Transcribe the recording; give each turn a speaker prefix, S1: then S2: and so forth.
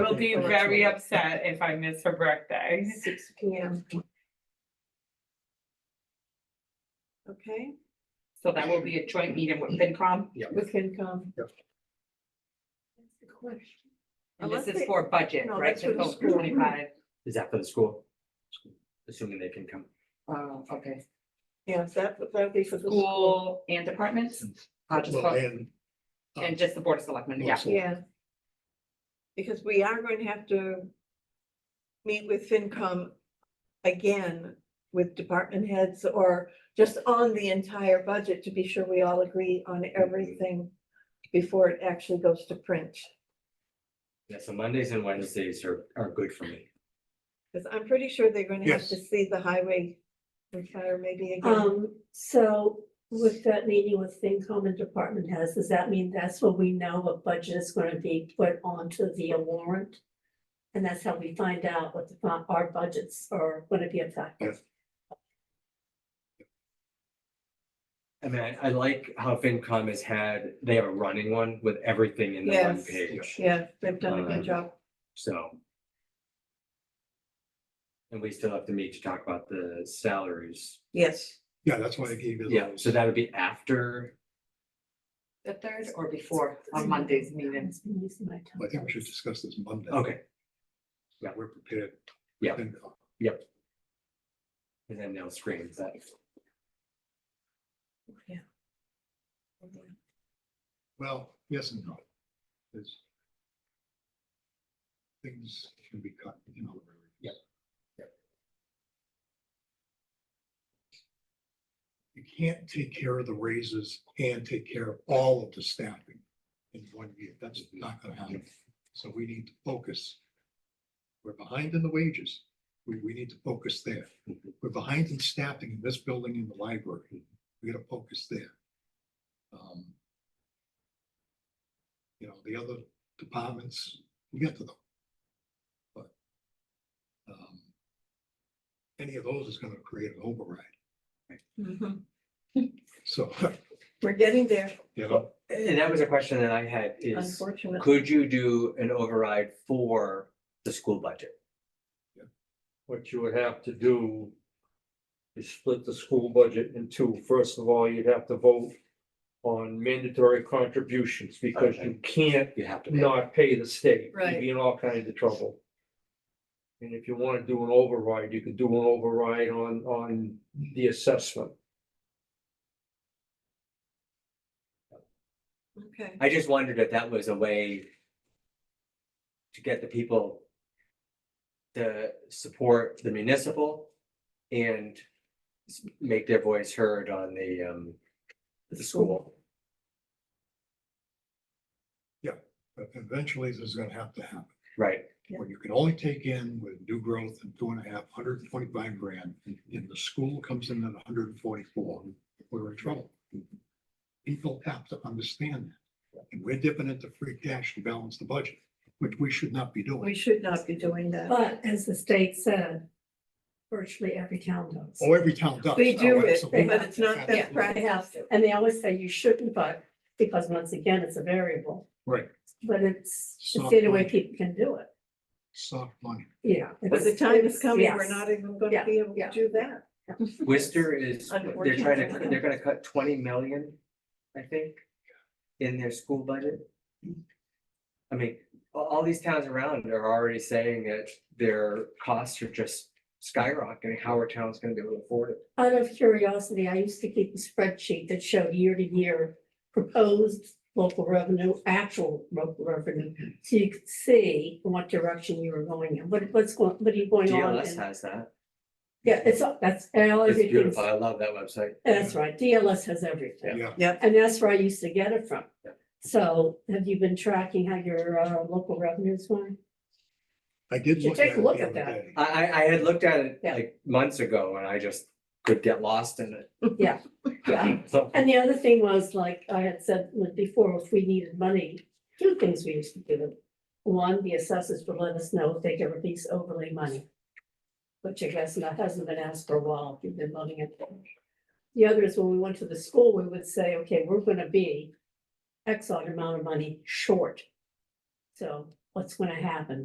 S1: will be very upset if I miss her birthday.
S2: Six P M. Okay,
S1: So that will be a joint meeting with FinCom.
S2: with FinCom.
S3: Yep.
S2: That's the question.
S1: And this
S2: Unless
S1: is
S2: they-
S1: for budget,
S2: No,
S1: right?
S2: that's for the
S1: fiscal
S2: school.
S1: 25.
S3: Is that for the school? Assuming they can come.
S1: Oh, okay.
S2: Yes, that, that'd be for the school.
S1: School and departments? I'll just
S4: Well,
S1: vote.
S4: and, um,
S1: And just the Board of Selectmen, yeah.
S4: Yes.
S2: Yeah. Because we are going to have to meet with FinCom again with department heads or just on the entire budget to be sure we all agree on everything before it actually goes to print.
S3: Yeah, so Mondays and Wednesdays are, are good for me.
S2: Because I'm pretty sure they're gonna have
S4: Yes.
S2: to see the highway and fire maybe again.
S5: Um, so with that meeting with FinCom and department heads, does that mean that's where we know what budget is gonna be put onto the warrant? And that's how we find out what the, fi- our budgets are gonna be affected?
S4: Yes.
S3: I mean, I- I like how FinCom has had, they have a running one with everything in the one
S2: Yes.
S3: page,
S2: Yeah, they've done a
S3: Um,
S2: good job.
S3: so. And we still have to meet to talk about the salaries.
S2: Yes.
S4: yeah, that's why I gave you.
S3: Yeah,
S4: those.
S3: so that would be after,
S1: The third or before on Monday's meeting.
S5: It's been using my time.
S4: I think we should discuss this Monday.
S3: okay,
S4: Yeah, we're prepared.
S3: Yeah.
S4: And,
S3: and then they'll screen that.
S4: Well, yes and no. There's. Things can be cut, you know.
S3: Yep.
S4: You can't take care of the raises and take care of all of the staffing in one year. That's not gonna happen. So we need to focus. We're behind in the wages. We, we need to focus there. We're behind in staffing in this building in the library. We gotta focus there. Um, you know, the other departments, we get to them. But. um, Any of those is gonna create an override,
S2: Mhm.
S4: so,
S2: We're getting there,
S4: you know,
S3: And that was a question that I had is.
S2: unfortunately.
S3: Could you do an override for the school budget?
S6: what you would have to do is split the school budget in two. First of all, you'd have to vote on mandatory contributions because you can't
S3: You have to.
S6: not pay the state.
S2: Right.
S6: You'd be in all kinds of trouble. And if you want to do an override, you could do an override on, on the assessment.
S2: Okay.
S3: I just wondered if that was a way to get the people to support the municipal and s- make their voice heard on the, um, the school.
S4: but eventually this is gonna have to happen.
S3: Right,
S4: Where you can only take in with new growth and two and a half, hundred and twenty-five grand, and the school comes in at hundred and forty-four, we're in trouble. People have to understand that, and we're dipping into free cash to balance the budget, which we should not be doing.
S2: We should not be doing that.
S5: But as the state said, virtually every town does.
S4: Oh, every town does.
S2: We do
S4: Oh,
S2: it,
S4: absolutely.
S2: but it's not best
S4: Absolutely.
S5: They have
S2: practice.
S5: to. And they always say you shouldn't, but because once again, it's a variable.
S4: Right.
S5: But it's, it's
S4: Soft
S5: the only way
S4: money.
S5: people can do it,
S4: Soft money.
S5: yeah.
S2: But the
S5: it's-
S2: time is
S5: it's-
S2: coming, we're
S5: yes.
S2: not even gonna
S5: Yeah,
S2: be able to
S5: yeah.
S2: do that.
S3: Worcester is, they're trying to,
S2: Unfortunately.
S3: they're gonna cut twenty million, I think, in their school budget. I mean, a- all these towns around are already saying that their costs are just skyrocketing, how are towns gonna be able to afford it?
S5: Out of curiosity, I used to keep a spreadsheet that showed year to year proposed local revenue, actual local revenue. So you could see in what direction you were going in, what, what's going, what are you going on?
S3: DLS
S5: in.
S3: has that,
S5: Yeah, it's, all- that's, and all
S3: it's
S5: everything's,
S3: beautiful, I love that website.
S5: that's right, DLS has everything.
S4: Yeah,
S2: Yep.
S5: And that's where I used to get it from.
S3: Yep.
S5: So have you been tracking how your uh, local revenues going?
S4: I did
S5: Should
S4: look at
S5: take
S4: it
S5: a
S4: the
S5: look at
S4: other
S5: that.
S4: day.
S3: I, I, I had looked at it
S5: Yeah.
S3: like months ago and I just could get lost in it.
S5: Yeah. Yeah.
S3: So,
S5: And the other thing was, like I had said before, if we needed money, two things we used to do. One, the assessors would let us know if they could release overlay money. Which I guess that hasn't been asked for a while, if you've been loving it. The other is when we went to the school, we would say, okay, we're gonna be X odd amount of money short. So what's gonna happen?